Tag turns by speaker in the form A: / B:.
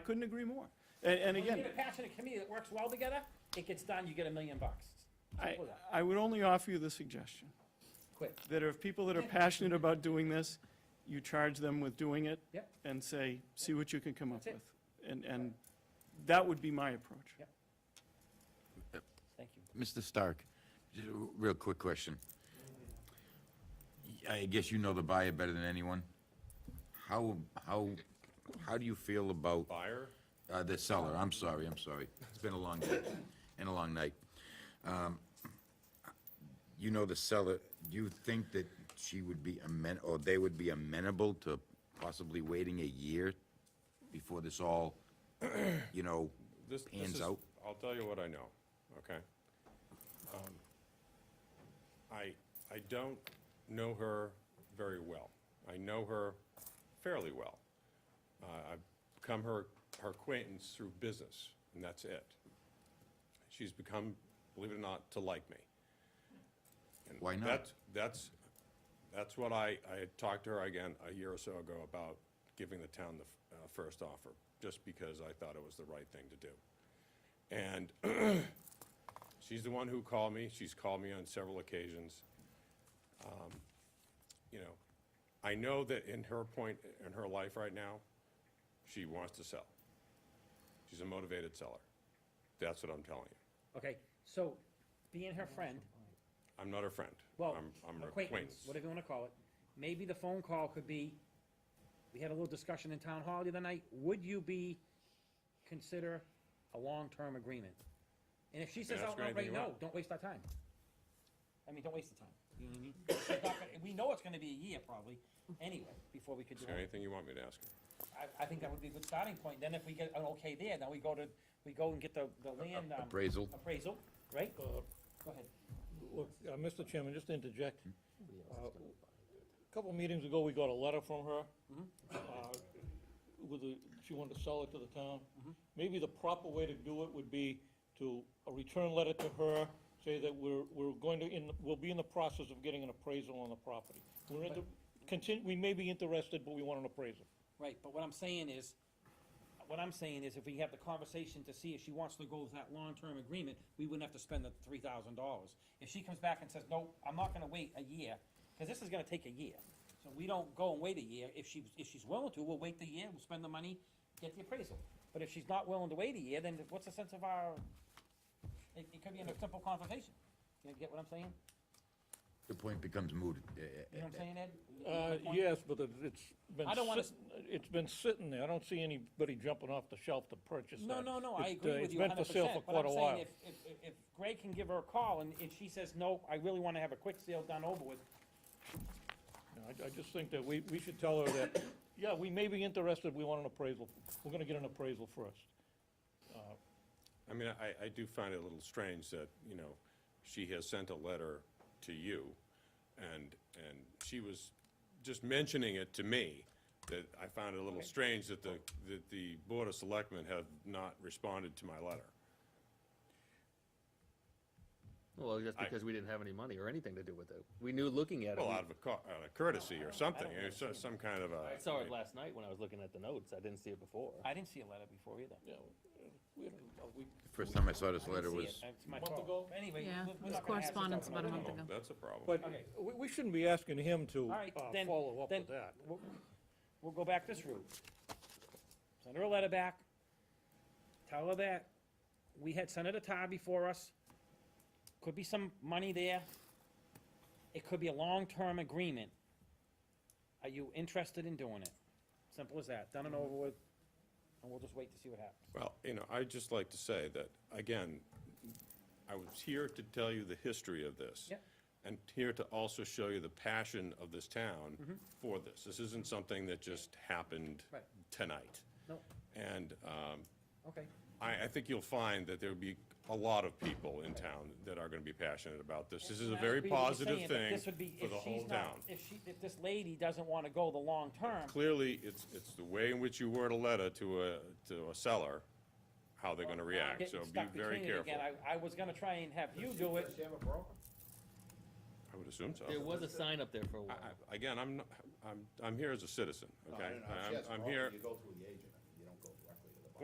A: Couldn't agree more. And, and
B: When you
A: again,
B: get a passionate committee that works well together, it gets done, you get a million bucks.
A: I,
B: Simple as that.
A: I would only offer you the suggestion,
B: Quick.
A: that if people that are passionate about doing this, you charge them with doing it.
B: Yep.
A: And say, see what you can come up
B: That's it.
A: with. And, and that would be my approach.
B: Yep. Thank you.
C: Mr. Stark, just a r- real quick question. Y- I guess you know the buyer better than anyone. How, how, how do you feel about?
D: Buyer?
C: Uh, the seller, I'm sorry, I'm sorry. It's been a long day and a long night. Um, You know the seller, do you think that she would be amen, or they would be amenable to possibly waiting a year before this all, you know,
D: This, this
C: Hands
D: is-
C: out.
D: I'll tell you what I know, okay? Um, I, I don't know her very well. I know her fairly well. Uh, I've become her, her acquaintance through business, and that's it. She's become, believe it or not, to like me. And
C: Why not?
D: That's, that's, that's what I, I had talked to her again a year or so ago about giving the town the f- uh, first offer, just because I thought it was the right thing to do. And she's the one who called me. She's called me on several occasions. Um, You know, I know that in her point, in her life right now, she wants to sell. She's a motivated seller. That's what I'm telling you.
B: Okay, so being her friend,
D: I'm not her friend.
B: well,
D: I'm- I'm her
B: acquaintance, whatever you wanna call it, maybe the phone call could be, we had a little discussion in town hall the other night, would you be, consider a long-term agreement? And if she says
D: ask
B: out
D: her anything
B: right
D: you
B: no,
D: want.
B: don't waste our time. I mean, don't waste the time. You know what I mean? It's not gonna- We know it's gonna be a year probably, anyway, before we could do
D: Is there
B: anything.
D: anything you want me to ask her?
B: I, I think that would be a good starting point, then if we get an okay there, then we go to, we go and get the, the land, um,
C: appraisal?
B: appraisal, right? Go ahead.
E: Uh, Look, uh, Mr. Chairman, just to interject. uh, A Couple meetings ago, we got a letter from her. uh, With the, she wanted to sell it to the town. Maybe the proper way to do it would be to, a return letter to her, say that we're, we're going to, in, we'll be in the process of getting an appraisal on the property. We're in the, contin, we may be interested, but we want an appraisal.
B: Right, but what I'm saying is, what I'm saying is if we have the conversation to see if she wants to go with that long-term agreement, we wouldn't have to spend the three thousand dollars. If she comes back and says, no, I'm not gonna wait a year, cause this is gonna take a year. So we don't go and wait a year. If she, if she's willing to, we'll wait the year, we'll spend the money, get the appraisal. But if she's not willing to wait a year, then what's the sense of our, it, it could be in a simple conversation. You get what I'm saying?
C: The point becomes moot. eh, eh,
B: You know what I'm saying, Ed?
E: Uh, yes, but it- it's been.
B: I don't wanna
E: sit- It's been sitting there. I don't see anybody jumping off the shelf to purchase that.
B: No, no, no, I
E: It, uh,
B: agree with you
E: It's
B: hundred
E: been for
B: percent.
E: sale for quite a while.
B: But I'm saying, if, if, if Greg can give her a call and, and she says, no, I really wanna have a quick sale done over with,
E: No, I, I just think that we, we should tell her that, yeah, we may be interested, we want an appraisal, we're gonna get an appraisal first.
D: I mean, I, I do find it a little strange that, you know, she has sent a letter to you, and, and she was just mentioning it to me, that I found it a little strange that the, that the Board of Selectmen have not responded to my letter.
F: Well, that's
D: I-
F: because we didn't have any money or anything to do with it. We knew looking at it.
D: Well,
F: we-
D: out of a co- out of courtesy or something, or so- some kind of a.
F: I saw it last night when I was looking at the notes. I didn't see it before.
B: I didn't see a letter before either.
E: Yeah, we, had a- a week-
C: First time I saw this
B: I didn't
C: letter
B: see
C: was.
B: it. It's my
E: Month
B: fault.
E: ago?
B: Anyway. we're-
G: Yeah,
B: we're
G: it was
B: not gonna ask her
G: correspondence
B: something
G: about a month
D: Oh,
G: ago.
D: That's a problem.
E: But
B: Okay.
E: we, we shouldn't be asking him to,
B: All right,
E: uh,
B: then-
E: follow up
B: then-
E: with that.
B: We'll we'll go back this route. Send her a letter back. Tell her that we had Senator Tar before us. Could be some money there. It could be a long-term agreement. Are you interested in doing it? Simple as that. Done and over with. And we'll just wait to see what happens.
D: Well, you know, I'd just like to say that, again, I was here to tell you the history of this.
B: Yep.
D: And here to also show you the passion of this town for this. This isn't something that just happened
B: Mm-hmm. Right.
D: tonight.
B: No,
D: And um,
B: okay.
D: I, I think you'll find that there'll be a lot of people in town that are going to be passionate about this. This is a
B: And I
D: very
B: agree with you
D: positive
B: saying, but
D: thing
B: this would be
D: for
B: if
D: the whole
B: she's not-
D: town.
B: If she, if this lady doesn't want to go the long term,
D: Clearly, it's, it's the way in which you word a letter to a, to a seller, how they're going to react, so
B: getting
D: be
B: stuck
D: very
B: between it
D: careful.
B: again. I, I was gonna try and have you do it.
D: I would assume so.
F: There was a sign up there for a while.
D: I- I- Again, I'm, not- I'm, I'm here as a citizen, okay? I'm, I'm here,
H: You go through the agent.